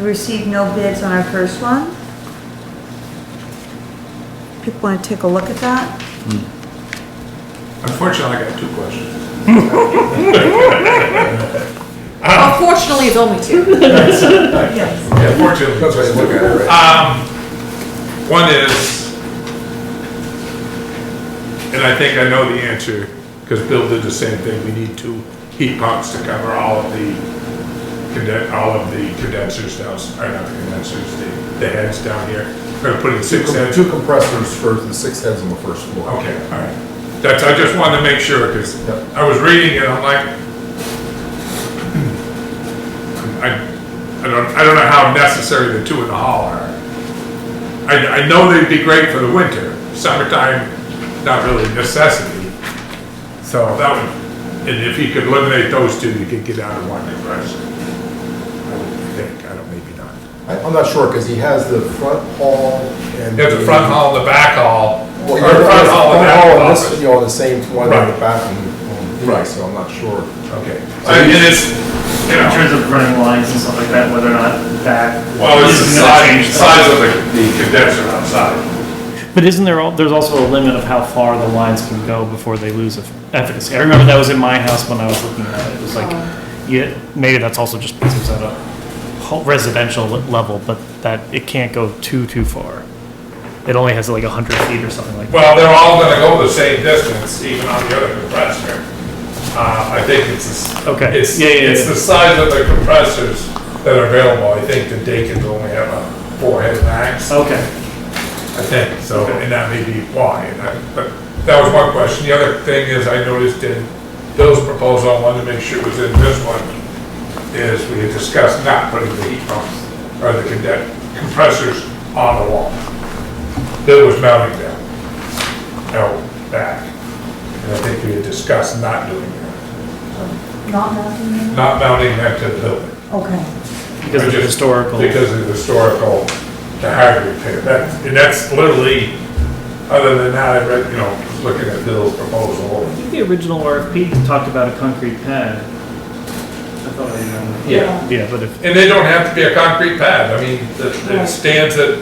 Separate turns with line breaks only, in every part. We Received no bids on our first one. People want to take a look at that?
Unfortunately, I got two questions.
Unfortunately, it's only two.
Yes.
Yeah, fortunately.
That's why you look at it, right?
Um, one is, and I think I know the answer, because Bill did the same thing, we need two heat pumps to cover all of the conden, all of the condensers down, or not the condensers, the, the heads down here. We're putting six heads.
Two compressors first and six heads on the first floor.
Okay, all right. That's, I just wanted to make sure, because
Yep.
I was reading it, I'm like, hmm, I, I don't, I don't know how necessary the two in the hall are. I, I know they'd be great for the winter, summertime, not really a necessity. So that would, and if you could eliminate those two, you could get out of one compressor. I would think, I don't, maybe not.
I- I'm not sure, because he has the front hall and.
There's the front hall, the back hall,
Well,
or
yeah, the
front hall and back
Oh, and
office.
this, you know, the same one in
Right.
the bathroom.
Right.
So I'm not sure.
Okay. And it's, you
In
know,
terms of running lines and stuff like that, whether or not that.
well, it's the
isn't gonna
size,
change the-
size of the the condenser outside.
But isn't there, al- there's also a limit of how far the lines can go before they lose eff- efficacy? I remember that was in my house when I was looking at it, it was like, yeah, maybe that's also just because it's at a ho- residential le- level, but that it can't go too, too far. It only has like a hundred feet or something like that.
Well, they're all gonna go the same distance, even on the other compressor. Uh, I think it's, the s-
Okay.
it's,
Yeah, yeah,
it's
yeah.
the size of the compressors that are available. I think the Dakins only have a four head max, I
Okay.
think, so, and that may be why. and I- But that was one question. The other thing is, I noticed in Bill's proposal, I wanted to make sure it was in this one, is we had discussed not putting the heat pumps or the conden- compressors on the wall. Bill was mounting them, out back. And I think we had discussed not doing that,
Not nothing?
not mounting that to the building.
Okay.
Because of the
Just
historical.
Because of the historical, the hard repair. That's, and that's literally, other than that, I read, you know, was looking at Bill's proposal.
I think the original RFP talked about a concrete pad. I thought I remember.
Yeah.
Yeah, but if,
And they don't have to be a concrete pad. I mean, the, the
Right.
stands that,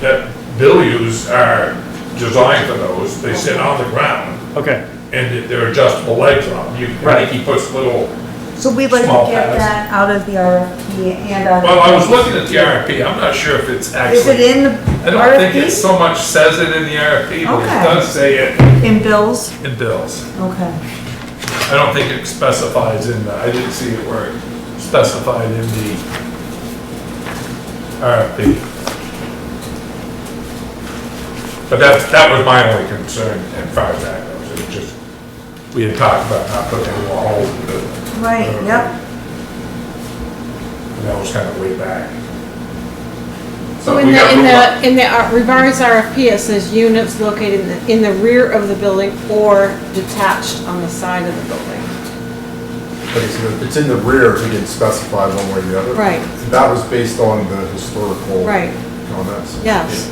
that Bill used are designed for those. They sit on the ground
okay.
and they're adjustable legs on them. You, I
Right.
think he puts little,
So we'd like
Small
to get
pads.
that out of the RFP and out of.
well, I was looking at the RFP. I'm not sure if it's actually.
Is it in the
I don't think it
RFP?
so much says it in the RFP, but it
Okay.
does say it
In bills?
in bills.
Okay.
I don't think it specifies in the, I didn't see it where it specified in the RFP. But that, that was my only concern as far as that goes, it was just, we had talked about not putting any more holes in the building.
Right, yep.
And that was kind of way back.
So
But
in
we
the,
got
in
room up.
the, in the uh, revised RFP, it says units located in the, in the rear of the building or detached on the side of the building.
But it's, in the- it's in the rear, he didn't specify one way or the other.
Right.
That was based on the historical.
Right.
Comments.
Yes.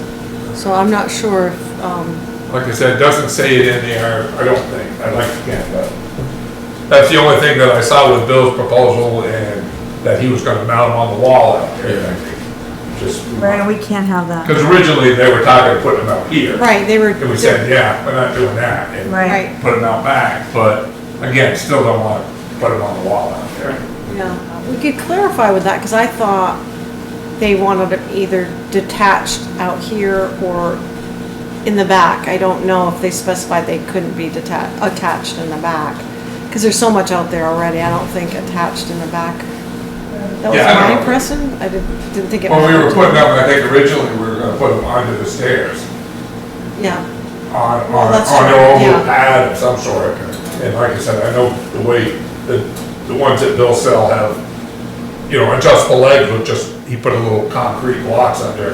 So I'm not sure, if, um,
Like I said, it doesn't say it in the R, I don't think, I'd like to get that. That's the only thing that I saw with Bill's proposal and that he was gonna mount them on the wall out there, I think. Just,
Right, we can't have that.
because originally they were talking of putting them out here.
right, they were.
And we said, yeah, we're not doing that. and
Right.
Right,
Put them out back, but again, still don't wanna put them on the wall out there.
yeah. We could clarify with that, because I thought they wanted it either detached out here or in the back. I don't know if they specified they couldn't be detached, attached in the back. Because there's so much out there already, I don't think attached in the back
Yeah, I don't
That was
know.
my impression, I didn't, didn't think it.
When we were putting
mattered.
them, I think originally we were gonna put them under the stairs.
Yeah,
on,
Well,
on,
that's
on
true,
their own little
yeah.
pad of some sort. And like I said, I know the way, the, the ones that Bill sell have, you know, adjustable legs with just, he put a little concrete blocks under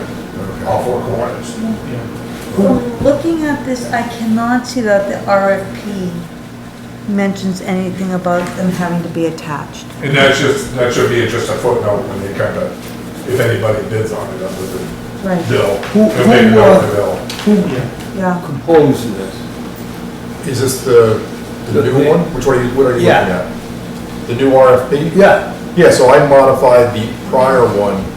all four corners.
So looking at this, I cannot see that the RFP mentions anything about them having to be attached.
And that's just, that should be just a footnote when they kind of, if anybody bids on it, other than
Right,
Bill.
Who-
if they
who,
know
uh,
the Bill.
yeah.
composed this.
Is this the, the new one? Which one are you, what are you looking
Yeah.
at? The new RFP?
Yeah.
Yeah, so I modified the prior one